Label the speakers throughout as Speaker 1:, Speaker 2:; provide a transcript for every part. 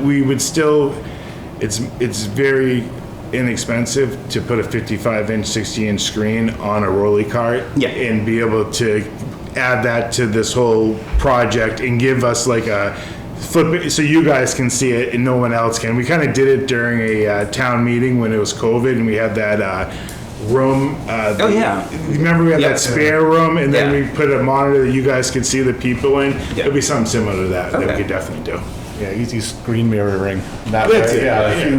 Speaker 1: we would still, it's, it's very inexpensive to put a 55 inch, 60 inch screen on a rolly cart.
Speaker 2: Yeah.
Speaker 1: And be able to add that to this whole project and give us like a flip, it so you guys can see it and no one else can. We kind of did it during a uh, town meeting when it was COVID and we had that uh, room. uh,
Speaker 2: Oh, yeah.
Speaker 1: Remember we had
Speaker 2: Yeah.
Speaker 1: that spare room and then
Speaker 2: Yeah.
Speaker 1: we put a monitor that you guys could see the people in?
Speaker 2: Yeah.
Speaker 1: It'd be something similar to that, that we
Speaker 2: Okay.
Speaker 1: could definitely do.
Speaker 3: Yeah, easy screen mirroring. That
Speaker 1: That's
Speaker 3: way,
Speaker 1: it, yeah.
Speaker 3: yeah, if you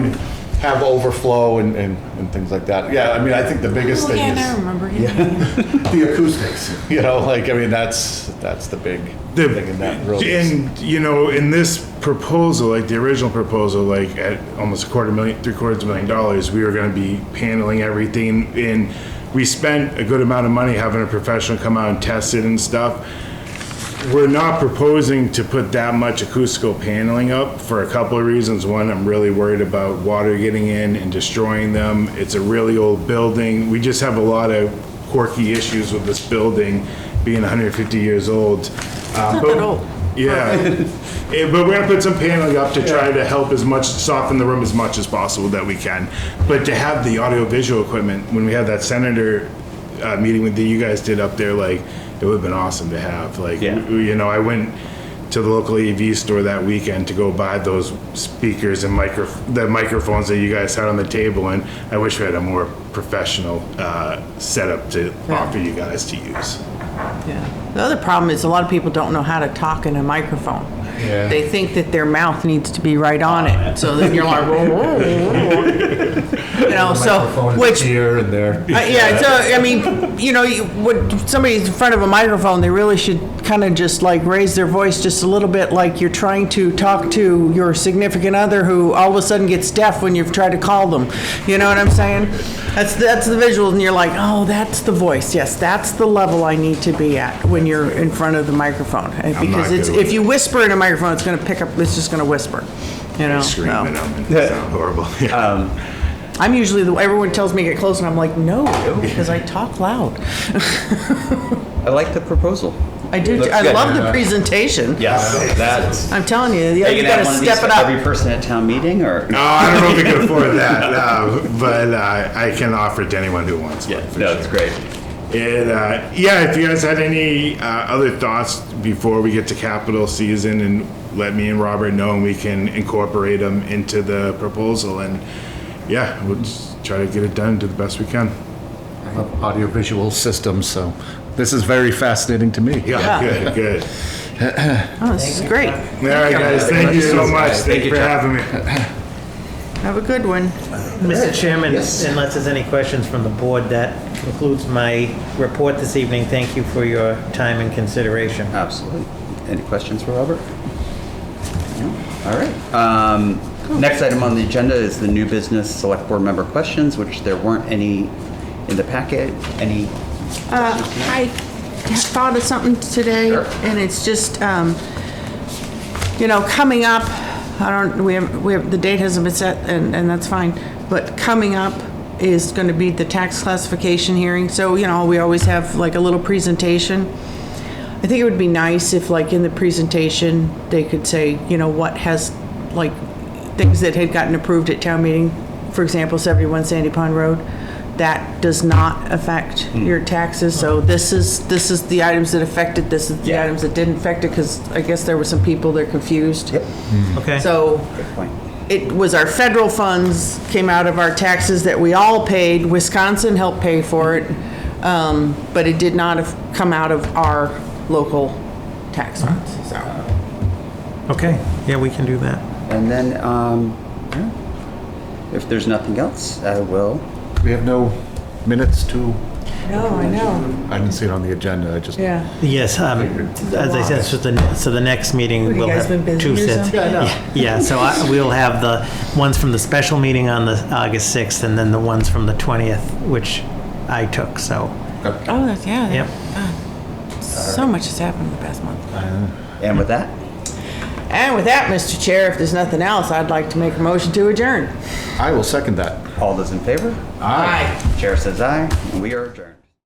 Speaker 3: have overflow and, and, and things like that. Yeah, I mean, I think the biggest
Speaker 4: Oh,
Speaker 3: thing
Speaker 4: yeah,
Speaker 3: is
Speaker 4: I remember him.
Speaker 3: the acoustics. You know, like I mean, that's that's the big
Speaker 1: The-
Speaker 3: thing in that room.
Speaker 1: And, you know, in this proposal, like the original proposal, like at almost a quarter million, three quarters of a million dollars, we were gonna be paneling everything and we spent a good amount of money having a professional come out and test it and stuff. We're not proposing to put that much acoustical paneling up for a couple of reasons. One, I'm really worried about water getting in and destroying them. It's a really old building. We just have a lot of quirky issues with this building being 150 years old. Uh, It's not
Speaker 4: that old.
Speaker 1: Yeah. Eh, But we're gonna put some paneling up to try to help as much, soften the room as much as possible that we can. But to have the audio-visual equipment, when we had that senator uh, meeting with you guys did up there, like, it would've been awesome to have, like,
Speaker 2: Yeah.
Speaker 1: w- you know, I went to the local AV store that weekend to go buy those speakers and micro, the microphones that you guys had on the table, and I wish we had a more professional uh, setup to offer you guys to use.
Speaker 4: Yeah. The other problem is a lot of people don't know how to talk in a microphone.
Speaker 3: Yeah.
Speaker 4: They think that their mouth needs to be right on it, so then you're like, "Whoa, whoa, whoa, whoa." you know, so, which, uh,
Speaker 3: here and there.
Speaker 4: yeah, so, I mean, you know, you- when somebody's in front of a microphone, they really should kind of just like raise their voice just a little bit, like you're trying to talk to your significant other who all of a sudden gets deaf when you've tried to call them, you know what I'm saying? That's, that's the visuals, and you're like, oh, that's the voice, yes, that's the level I need to be at when you're in front of the microphone. And
Speaker 1: I'm not
Speaker 4: Because it's,
Speaker 1: good with
Speaker 4: if you whisper in a microphone, it's gonna pick up, it's just gonna whisper, you know?
Speaker 1: Scream
Speaker 4: so.
Speaker 1: at them, and it sound horrible. Yeah.
Speaker 4: I'm usually the everyone tells me to get close, and I'm like, no, because I talk loud.
Speaker 2: I like the proposal.
Speaker 4: I do.
Speaker 2: Looks
Speaker 4: I
Speaker 2: good.
Speaker 4: love the presentation.
Speaker 2: Yes, that's.
Speaker 4: I'm telling you, yeah,
Speaker 2: Are you
Speaker 4: you
Speaker 2: gonna have
Speaker 4: gotta
Speaker 2: one of these
Speaker 4: step
Speaker 2: for
Speaker 4: it up.
Speaker 2: every person at town meeting or?
Speaker 1: No, I don't know if we can afford that, uh, but uh, I can offer it to anyone who wants one.
Speaker 2: Yeah,
Speaker 1: for
Speaker 2: no,
Speaker 1: sure.
Speaker 2: it's great.
Speaker 1: And uh, yeah, if you guys had any uh, other thoughts before we get to capital season, and let me and Robert know, and we can incorporate them into the proposal. And yeah, we'll just try to get it done, do the best we can.
Speaker 3: Audiovisual systems. So this is very fascinating to me.
Speaker 1: Yeah, good, good.
Speaker 4: Oh, this is great.
Speaker 1: All right, guys, thank you so much. Thank
Speaker 2: Thank
Speaker 1: you
Speaker 2: you,
Speaker 1: for
Speaker 2: Chuck.
Speaker 1: having me.
Speaker 4: Have a good one.
Speaker 5: Mr. Chairman,
Speaker 2: Yes.
Speaker 5: unless there's any questions from the board, that concludes my report this evening. Thank you for your time and consideration.
Speaker 2: Absolutely. Any questions for Robert? No? All right. Um, Next item on the agenda is the new business select board member questions, which there weren't any in the packet. Any?
Speaker 4: I thought of something today,
Speaker 2: Sure.
Speaker 4: and it's just, um, you know, coming up, I don't, we have, we have, the date hasn't been set, and, and that's fine, but coming up is gonna be the tax classification hearing, so, you know, we always have like a little presentation. I think it would be nice if like in the presentation, they could say, you know, what has, like, things that had gotten approved at town meeting, for example, 71 Sandy Pond Road, that does not affect your taxes, so this is, this is the items that affected, this is the
Speaker 2: Yeah.
Speaker 4: items that didn't affect it, because I guess there were some people that are confused.
Speaker 5: Okay?
Speaker 4: So
Speaker 2: Point.
Speaker 4: it was our federal funds came out of our taxes that we all paid. Wisconsin helped pay for it, um, but it did not have come out of our local tax funds, so.
Speaker 5: Okay, yeah, we can do that.
Speaker 2: And then, um, yeah. if there's nothing else, I will.
Speaker 3: We have no minutes to.
Speaker 4: No, I know,
Speaker 3: I didn't see it on the agenda. I just.
Speaker 4: yeah.
Speaker 5: Yes, um, as I said, so the, so the next meeting
Speaker 4: you
Speaker 5: will
Speaker 4: guys
Speaker 5: have
Speaker 4: been busy
Speaker 5: two
Speaker 4: or
Speaker 5: sets.
Speaker 4: something? Yeah,
Speaker 5: Yeah, so I- we'll have the ones from the special meeting on the August 6th and then the ones from the 20th, which I took, so,
Speaker 4: Oh, that's, yeah,
Speaker 5: yep.
Speaker 4: so much has happened in the past month.
Speaker 2: And with that,
Speaker 4: And with that, Mr. Chair, if there's nothing else, I'd like to make a motion to adjourn.
Speaker 3: I will second that.
Speaker 2: all those in favor?
Speaker 4: Aye.
Speaker 2: Chair says aye, and we are adjourned.